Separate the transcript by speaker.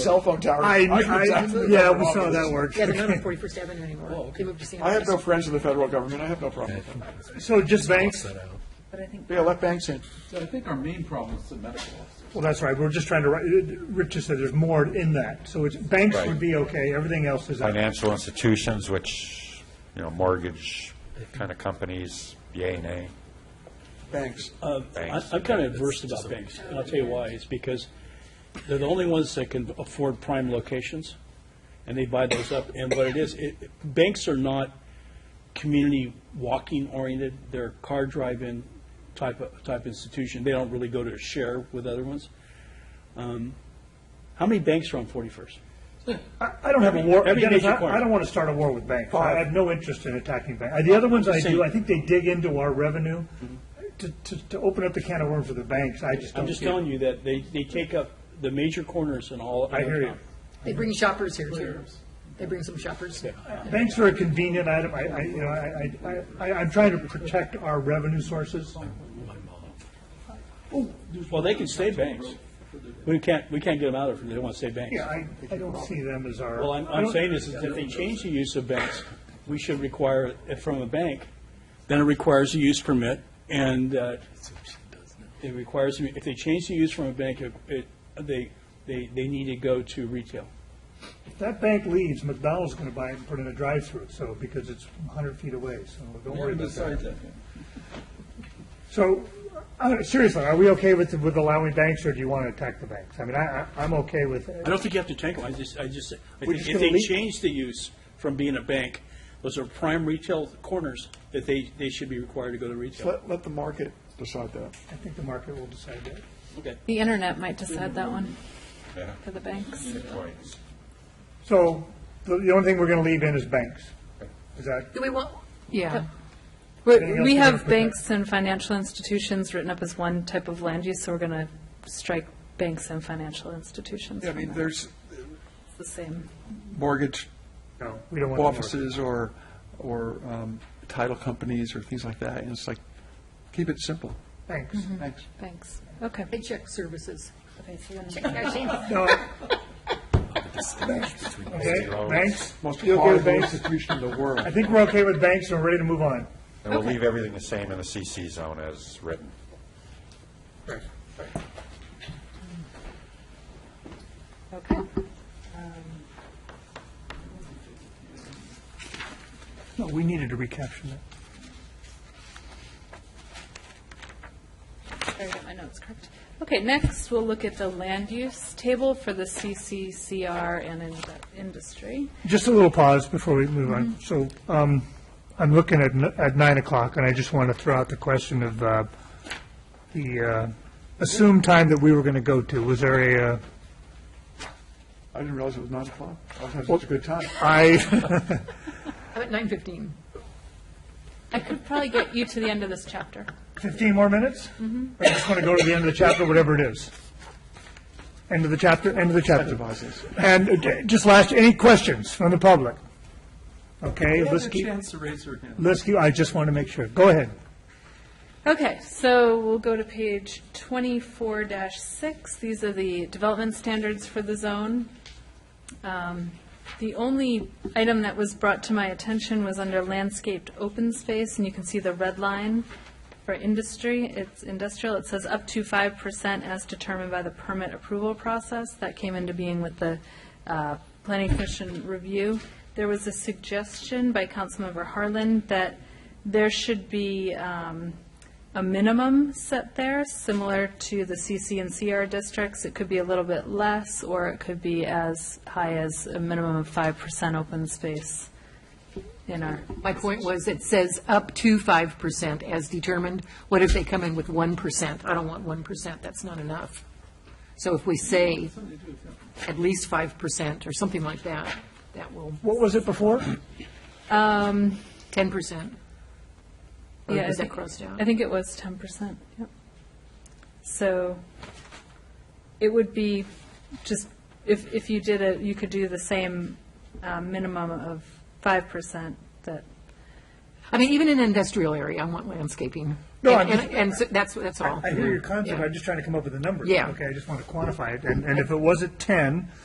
Speaker 1: cell phone tower.
Speaker 2: I,
Speaker 1: knew
Speaker 2: I,
Speaker 1: exactly
Speaker 2: yeah,
Speaker 1: what
Speaker 2: we saw
Speaker 1: was.
Speaker 2: that work.
Speaker 3: Yeah, they're not on 41st Avenue anymore. They moved to San
Speaker 1: Oh, I have no
Speaker 3: Francisco.
Speaker 1: friends in the federal government. I have no problem with them.
Speaker 2: So just banks?
Speaker 1: Yeah, let banks in.
Speaker 4: So I think our main problem is the medical officer.
Speaker 2: Well, that's right, we're just trying to, write- Rich just said there's more in that, so it's, banks would be okay, everything else is out.
Speaker 5: Financial institutions, which, you know, mortgage kind of companies, yay, nay.
Speaker 1: Banks.
Speaker 6: I- I'm kind of adverse about banks, and I'll tell you why. It's because they're the only ones that can afford prime locations, and they buy those up. And what it is, it, banks are not community walking oriented. They're a car drive-in type, of- type institution. They don't really go to share with other ones. Um, How many banks are on 41st?
Speaker 2: I I don't have a war,
Speaker 6: Every
Speaker 2: again,
Speaker 6: major
Speaker 2: I
Speaker 6: part.
Speaker 2: I don't want to start a war with banks. I have no interest in attacking banks. The other ones I do, I think they dig into our revenue. To, to, to open up the can of worms with the banks, I just don't.
Speaker 6: Mm-hmm. I'm just
Speaker 2: get it.
Speaker 6: telling you that they, they take up the major corners in all.
Speaker 2: I hear you.
Speaker 6: of town.
Speaker 3: They bring shoppers here, too. They bring some shoppers.
Speaker 2: Banks are a convenient item. I, I, you know, I, I- I, I'm trying to protect our revenue sources.
Speaker 6: Well, they can stay banks. We can't, we can't get them out of it if they want to stay banks.
Speaker 2: Yeah, I, I don't see them as our.
Speaker 6: Well, I'm,
Speaker 2: I
Speaker 6: I'm
Speaker 2: don't-
Speaker 6: saying is, is if they change the use of banks, we should require it from a bank, then it requires a use permit, and uh, it requires, if they change the use from a bank, it- it, they, they, they need to go to retail.
Speaker 2: If that bank leaves, McDonald's going to buy it and put in a drive-through, so, because it's 100 feet away, so don't worry about that.
Speaker 4: Besides that,
Speaker 2: So, uh, seriously, are we okay with, with allowing banks, or do you want to attack the banks? I mean, I, I- I'm okay with,
Speaker 6: I don't think you have to tank them, I just, I just, I
Speaker 2: We're
Speaker 6: think
Speaker 2: just
Speaker 6: if
Speaker 2: gonna
Speaker 6: they
Speaker 2: leave-
Speaker 6: change the use from being a bank, those are prime retail corners that they, they should be required to go to retail.
Speaker 1: Let, let the market decide that.
Speaker 2: I think the market will decide that.
Speaker 6: Okay.
Speaker 7: The internet might decide that one for the banks.
Speaker 2: So, the, the only thing we're going to leave in is banks. Is that,
Speaker 3: Do we want,
Speaker 7: Yeah.
Speaker 2: Anything
Speaker 7: We
Speaker 2: else
Speaker 7: we
Speaker 2: you wanna
Speaker 7: have
Speaker 2: put
Speaker 7: banks and financial institutions written up as one type of land use, so we're going to strike banks and financial institutions
Speaker 1: Yeah, I
Speaker 7: from
Speaker 1: mean,
Speaker 7: that.
Speaker 1: there's
Speaker 7: It's the same.
Speaker 1: mortgage
Speaker 2: no, we don't want. the market.
Speaker 1: offices or, or um, title companies or things like that, and it's like, keep it simple.
Speaker 2: Banks.
Speaker 1: Thanks.
Speaker 7: Banks, okay.
Speaker 3: paycheck services?
Speaker 2: No. Okay, banks?
Speaker 1: Most
Speaker 2: You okay with
Speaker 1: horrible
Speaker 2: banks?
Speaker 1: institution in the world.
Speaker 2: I think we're okay with banks, and we're ready to move on.
Speaker 5: And we'll leave everything the same in the CC zone as written.
Speaker 7: Okay.
Speaker 2: No, we needed to recapture that.
Speaker 7: Sorry, I got my notes correct. Okay, next, we'll look at the land use table for the CCCR and in- industry.
Speaker 2: Just a little pause before we move on. So um, I'm looking at, n- at nine o'clock, and I just want to throw out the question of uh, the uh, assumed time that we were going to go to. Was there a, uh,
Speaker 1: I didn't realize it was nine o'clock. I was having such a good time.
Speaker 2: I,
Speaker 3: I'm at 9:15.
Speaker 7: I could probably get you to the end of this chapter.
Speaker 2: 15 more minutes? Or you just want to go to the end of the chapter, whatever it is? End of the chapter, end of the chapter.
Speaker 1: Advises.
Speaker 2: And uh, j- just last, any questions from the public? Okay,
Speaker 4: Have
Speaker 2: let's
Speaker 4: a
Speaker 2: keep,
Speaker 4: chance to raise her hand.
Speaker 2: let's keep, I just want to make sure. Go ahead.
Speaker 7: Okay, so we'll go to page twenty-four six. These are the development standards for the zone. Um, The only item that was brought to my attention was under landscaped open space, and you can see the red line for industry. It's industrial. It says up to five percent as determined by the permit approval process. That came into being with the uh, planning commission review. There was a suggestion by Councilmember Harlan that there should be um, a minimum set there, similar to the CC and CR districts. It could be a little bit less, or it could be as high as a minimum of 5% open space in our,
Speaker 3: My point was, it says up to 5% as determined. What if they come in with 1%? I don't want 1%, that's not enough. So if we say at least 5% or something like that, that will,
Speaker 2: What was it before?
Speaker 3: 10%. Or
Speaker 7: Yeah, I
Speaker 3: is that
Speaker 7: think-
Speaker 3: crossed out?
Speaker 7: I think it was 10%, yep. So it would be just, if, if you did it, you could do the same uh, minimum of 5% that
Speaker 3: I mean, even in an industrial area, I want landscaping.
Speaker 2: No, I'm
Speaker 3: And-
Speaker 2: just-
Speaker 3: And and so that's, that's all.
Speaker 2: I hear your concept,
Speaker 3: Yeah.
Speaker 2: I'm just trying to come up with a number.
Speaker 3: Yeah.
Speaker 2: Okay, I just want to quantify it, and, and if it was at ten,